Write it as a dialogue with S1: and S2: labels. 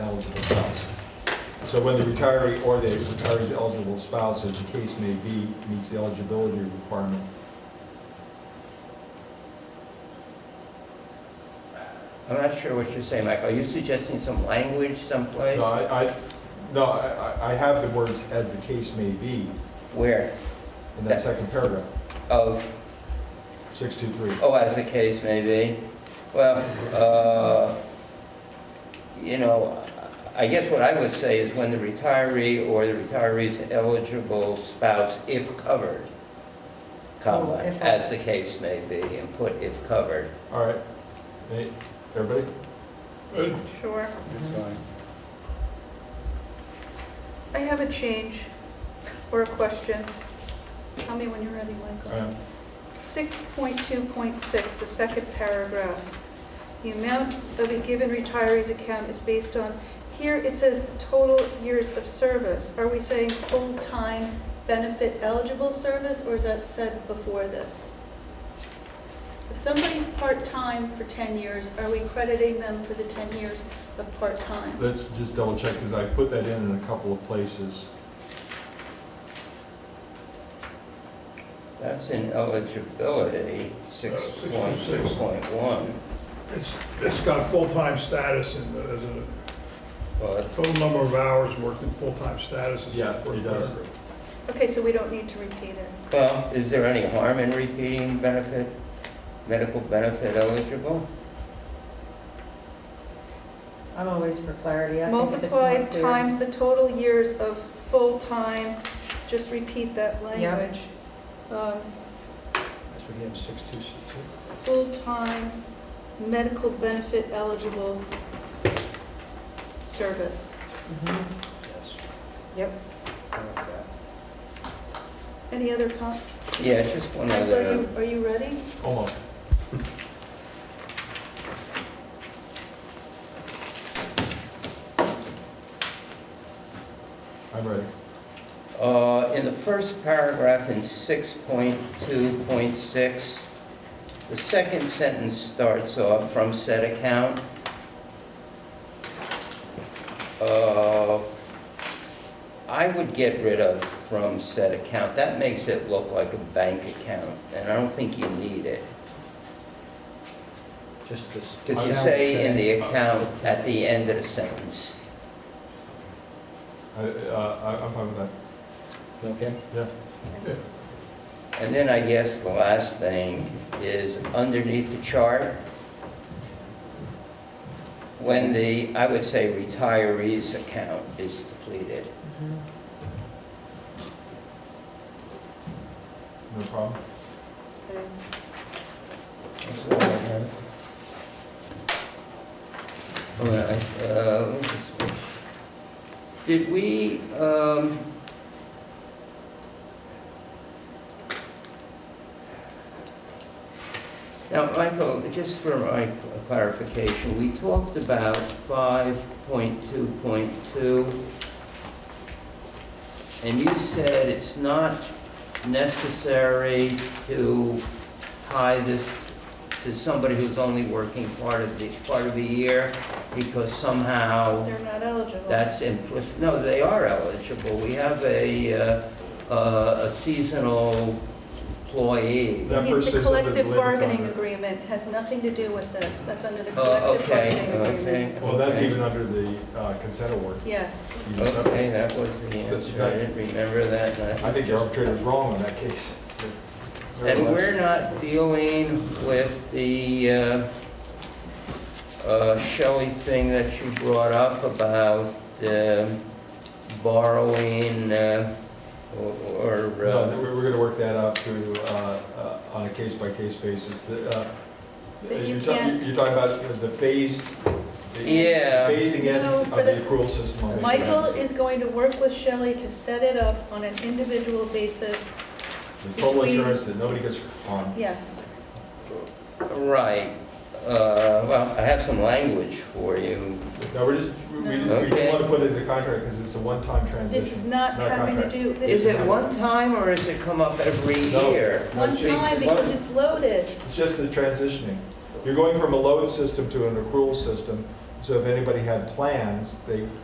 S1: So when the retiree or the retiree's eligible spouse, as the case may be, meets the eligibility requirement.
S2: I'm not sure what you're saying, Mike. Are you suggesting some language someplace?
S1: No, I, I, no, I, I- I have the words "as the case may be"
S2: Where?
S1: in that second paragraph,
S2: Of,
S1: six two three.
S2: oh, as the case may be. Well, uh, you know, I guess what I would say is when the retiree or the retiree's eligible spouse, if covered, comma,
S3: Oh, if-
S2: as the case may be, and put if covered.
S1: All right. Any- Everybody?
S3: Sure. I have a change or a question. Tell me when you're ready,
S1: All
S3: Michael.
S1: right.
S3: 6.2.6, the second paragraph. The amount of a given retiree's account is based on, here it says the total years of service. Are we saying full-time benefit eligible service, or is that said before this? If somebody's part-time for 10 years, are we crediting them for the 10 years of part-time?
S1: Let's just double check, because I put that in in a couple of places.
S2: That's in eligibility, six point six point one.
S4: It's, it's got full-time status and uh, there's a
S2: But
S4: total number of hours worked in full-time status. is
S1: Yeah,
S4: the first
S1: it does.
S4: paragraph.
S3: Okay, so we don't need to repeat it.
S2: Well, is there any harm in repeating benefit, medical benefit eligible?
S5: I'm always for clarity. I think if it's more
S3: Multiplied
S5: clear-
S3: times the total years of full-time, just repeat that
S5: Yeah.
S3: language. Um,
S6: That's what he had, six, two, six, two.
S3: Full-time, medical benefit eligible service.
S5: Mhm.
S6: Yes.
S5: Yep.
S6: I like that.
S3: Any other comments?
S2: Yeah, just one
S3: Are
S2: other,
S3: you, are you ready?
S1: Almost. I'm ready.
S2: uh, in the first paragraph in six point two point six, the second sentence starts off from said account. Uh, I would get rid of from said account, that makes it look like a bank account, and I don't think you need it.
S6: Just this.
S2: Because you say in the account at the end of the sentence.
S1: I, uh, I- I'm fine with that.
S6: Okay.
S1: Yeah.
S4: Yeah.
S2: And then I guess the last thing is underneath the chart, when the, I would say retiree's account is depleted.
S1: No problem.
S3: Okay.
S2: That's all I have. All right, uh, let me just- Did we, um, now, Michael, just for my clarification, we talked about five point two point two, and you said it's not necessary to tie this to somebody who's only working part of the, part of the year, because somehow
S3: They're not eligible.
S2: that's implicit, no, they are eligible. We have a, uh, uh, a seasonal employee.
S1: That
S3: The-
S1: versus
S3: The
S1: under the
S3: collective
S1: labor
S3: bargaining
S1: contract.
S3: agreement has nothing to do with this. That's under
S5: Oh,
S3: the
S2: Uh,
S3: collective
S2: Okay,
S3: bargaining
S2: okay.
S3: agreement.
S1: Well, that's
S2: okay.
S1: even under the uh, consent award.
S3: Yes.
S1: You just-
S2: Okay, that was the answer. I didn't remember that. and
S1: I think the arbitrator's wrong in that case.
S2: And we're not dealing with the uh, uh, Shelley thing that you brought up about um, borrowing uh, or, or,
S1: No,
S2: uh,
S1: we're, we're gonna work that out to, uh, uh, on a case-by-case basis. The, uh,
S3: But you
S1: you're talk-
S3: can't-
S1: You're talking about the phased, the
S2: Yeah.
S1: phasing in
S3: No,
S1: of
S3: for
S1: the
S3: the-
S1: accrual system.
S3: Michael is going to work with Shelley to set it up on an individual basis.
S1: The total
S3: between-
S1: insurance that nobody gets on.
S3: Yes.
S2: right. Uh, Well, I have some language for you.
S1: No, we're just, we, we
S2: No.
S1: we
S2: Okay.
S1: don't wanna put it in the contract because it's a one-time transition.
S3: This is not
S1: Not
S3: having to
S1: contract.
S3: do, this
S2: Is
S3: is
S2: it one time or is it come up every
S1: No.
S2: year?
S1: No,
S3: one
S1: it's just-
S3: time because it's loaded.
S1: It's just the transitioning. You're going from a load system to an accrual system. So if anybody had plans, they